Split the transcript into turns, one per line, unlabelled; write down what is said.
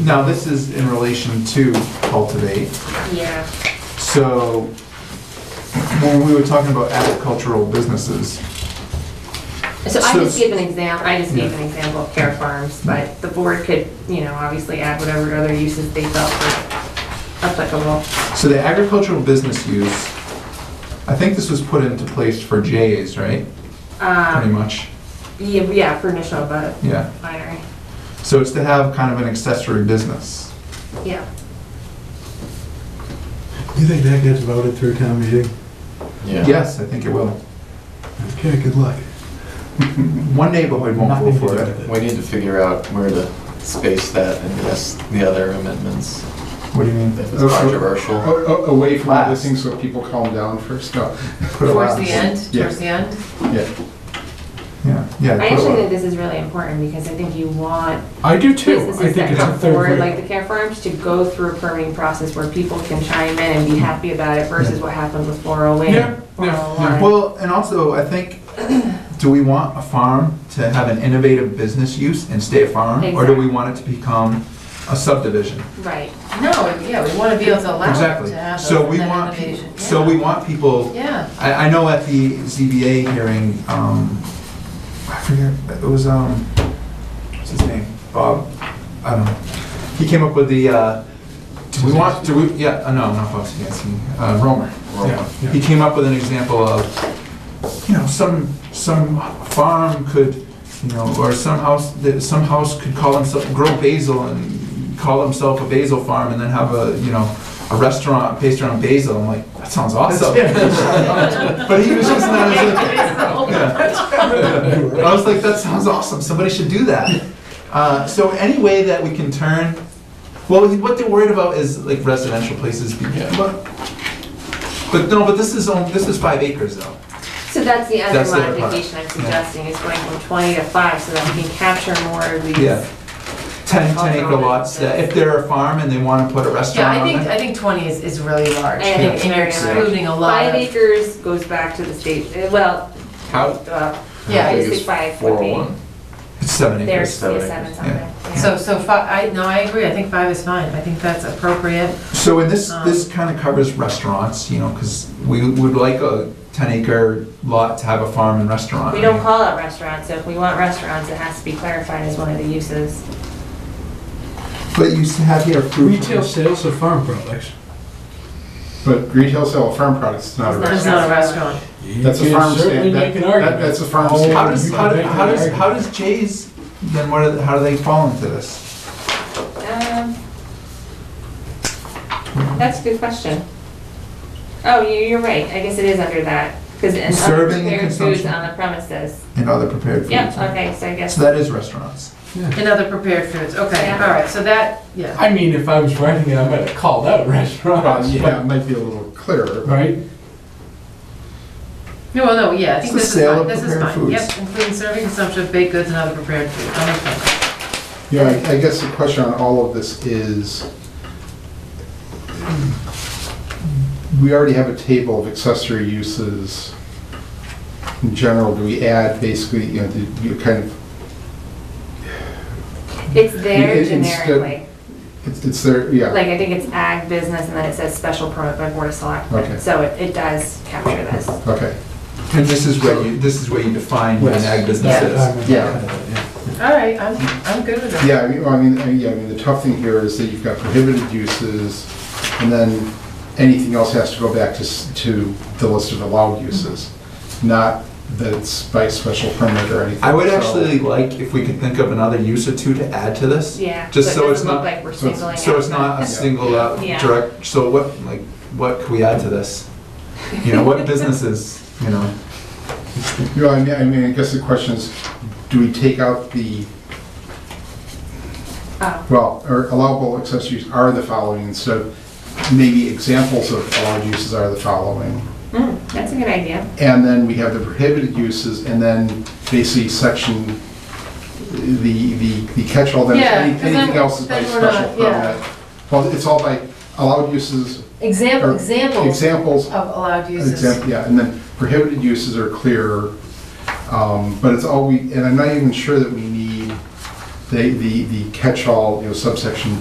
Now, this is in relation to cultivate.
Yeah,
So when we were talking about agricultural businesses,
so I
So-
just gave an example, I just gave
Yeah.
an example of care farms, but the board could, you know, obviously add whatever other uses they felt were applicable.
so the agricultural business use, I think this was put into place for J's, right? Pretty
Um,
much,
yeah, yeah, for initial, but
yeah.
binary,
So it's to have kind of an accessory business.
yeah.
You think that gets voted through town meeting?
Yes, I think it will.
Okay, good luck.
One neighborhood won't
Nothing
vote
to
for
do
it.
with
We need to figure out where to space that and yes, the other amendments,
What do you mean?
if it's controversial.
A- a- Away from other
Last.
things so people calm down first, no.
Put a
Towards
last.
the end,
Yeah.
towards the end?
Yeah,
Yeah, yeah.
I
put a
actually
last.
think this is really important because I think you want
I do too. I
businesses
think
that
it's a
come
third
forward,
rail.
like the care farms, to go through a permitting process where people can chime in and be happy about it versus what happened with
Mm-hmm. Yeah,
408,
yeah, yeah.
401.
Well, and also, I think, do we want a farm to have an innovative business use and stay a farm? Or do we want it to become a subdivision?
Right,
No, yeah, we want to be able to allow them
Exactly.
to have
So
those-
we
that
want,
innovation.
peop- so we want people,
Yeah,
I, I know at the ZBA hearing, um, I forget, it was, um, what's his name? Bob, I don't know. He came up with the, uh, do we want, do we, yeah, uh, no, not Bob Sikansky, uh, Romer.
Yeah, yeah.
He came up with an example of, you know, some, some farm could, you know, or some house, that some house could call himself, grow basil and call himself a basil farm and then have a, you know, a restaurant based around basil. I'm like, that sounds awesome. But he was just not as, yeah. I was like, that sounds awesome, somebody should do that. Uh, so any way that we can turn, well, what they're worried about is like residential places, be-
Yeah.
but, but no, but this is, on- this is five acres though.
so that's the other
That's the other part.
modification I'm suggesting, is going from 20 to 5 so that we can capture more of these.
Yeah. Ten, ten acre
Off-road.
lots, that if they're a farm and they wanna put a
yeah,
restaurant
I think,
on it.
I think 20 is, is really large.
I think it's
And you're
very large.
excluding a lot
Five
of,
acres goes back to the state, uh, well,
How?
uh,
Yeah.
Use
basically five would be,
401.
It's seven acres.
there's
Seven
yeah,
acres,
seven something.
yeah.
yeah.
so, so five, I, no, I agree, I think five is fine, I think that's appropriate.
So and this,
Um,
this kinda covers restaurants, you know, cause we would like a ten acre lot to have a farm and restaurant.
We don't call it restaurants, so if we want restaurants, it has to be clarified as one of the uses.
But you have here fruit.
Retail sales of farm products.
but retail sell of farm products, it's not a
It's
It's
restaurant.
not a restaurant.
That's a farm stand. That- that- That's a farm stand.
How does, how does,
You can
how does,
make an
how does Jay's, then what, are- how do they fall into this?
Um, That's a good question. Oh, you- you're right, I guess it is under that, because in other
Serving and
prepared foods
consumption.
on the premises.
And other prepared foods?
Yep, okay, so I guess,
So that is restaurants.
And other prepared foods, okay,
Yeah.
all right, so that, yeah.
I mean, if I was writing it, I might have called out
Well,
restaurants,
Yeah, it
but,
might be a little clearer. but-
right?
No, well, no, yeah, I
It's
think
the
this is
sale
fine,
of
this is
prepared
fine. Yep,
foods.
including serving, consumption of baked goods and other prepared foods, I'm okay.
Yeah, I- I guess the question on all of this is, we already have a table of accessory uses in general. Do we add basically, you know, do you kind of,
it's there
It- it- it's
generically.
it's- it's there, yeah.
Like, I think it's ag business, and then it says special permit by board of selectmen.
Okay.
So it, it does capture this.
Okay,
And this is where you, this is where you define what an ag business is.
All right, I'm, I'm good with that.
yeah, I mean, well, I mean, I mean, yeah, I mean, the tough thing here is that you've got prohibited uses, and then anything else has to go back to, s- to the list of allowed uses, not that it's by special permit or anything.
I would
So-
actually like if we could think of another use or two to add to this.
Yeah.
Just so
it
it's
doesn't look
not-
Like we're
so it's-
singling out.
So it's not a
something.
single out
Yeah.
direct, so what, like, what could we add to this? You know, what businesses, you know?
You know, I mean, I mean, I guess the question is, do we take out the,
Oh.
well, or allowable accessories are the following, and so maybe examples of allowed uses are the following.
Mm, That's a good idea.
And then we have the prohibited uses, and then basically section, the, the the catch-all, then
Yeah,
any-
'cause then-
anything else is by
then we're not-
special
yeah.
permit. Well, it's all by allowed uses,
Example,
Or
examples of
examples,
allowed uses.
Example, yeah, and then prohibited uses are clear, um, but it's all we, and I'm not even sure that we need the, the the catch-all, you know, subsection